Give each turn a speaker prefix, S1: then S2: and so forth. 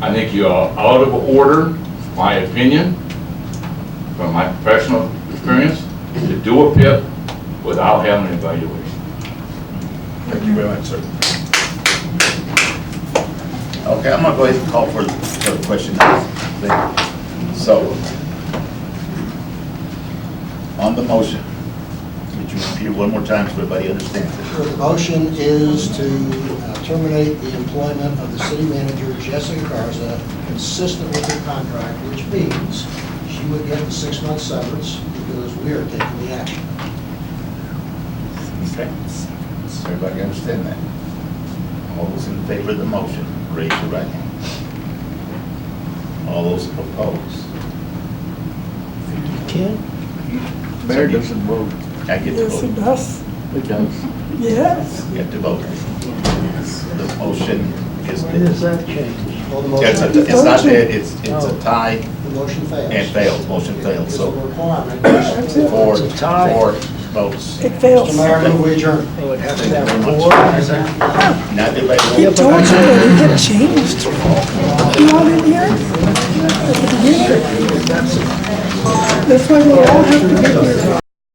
S1: I think you are out of order, my opinion, from my professional experience, to do a PIP without having an evaluation.
S2: Thank you very much, sir.
S3: Okay, I'm gonna go ahead and call for, for the question. then. So, on the motion, could you repeat it one more time so everybody understands it?
S4: Your motion is to uh, terminate the employment of the city manager Jessica Garza consistent with her contract, which means she would get the six-month severance because we are taking the action.
S3: Okay. Does everybody understand that? All those in favor of the motion, raise your right hand. All those opposed?
S5: Can?
S3: Mayor doesn't
S6: vote.
S3: I get to
S5: Yes, it
S3: vote.
S5: does.
S6: It does.
S5: Yes.
S3: Get to vote. The motion is,
S6: When does that change?
S4: Well, the
S3: it's,
S4: motion,
S3: a- it's not that, it's, it's a tie
S4: the motion fails.
S3: and fails, motion fails,
S4: It's
S3: so
S4: a requirement. Mr.
S3: four,
S6: It's a tie.
S3: four votes.
S5: It fails.
S4: Mayor, I move we adjourn.
S6: Oh, it has
S3: Thank you very much. Now, everybody
S5: I
S3: vote.
S5: told you that it had changed. You want in here? At the beginning. That's why we all have to be here.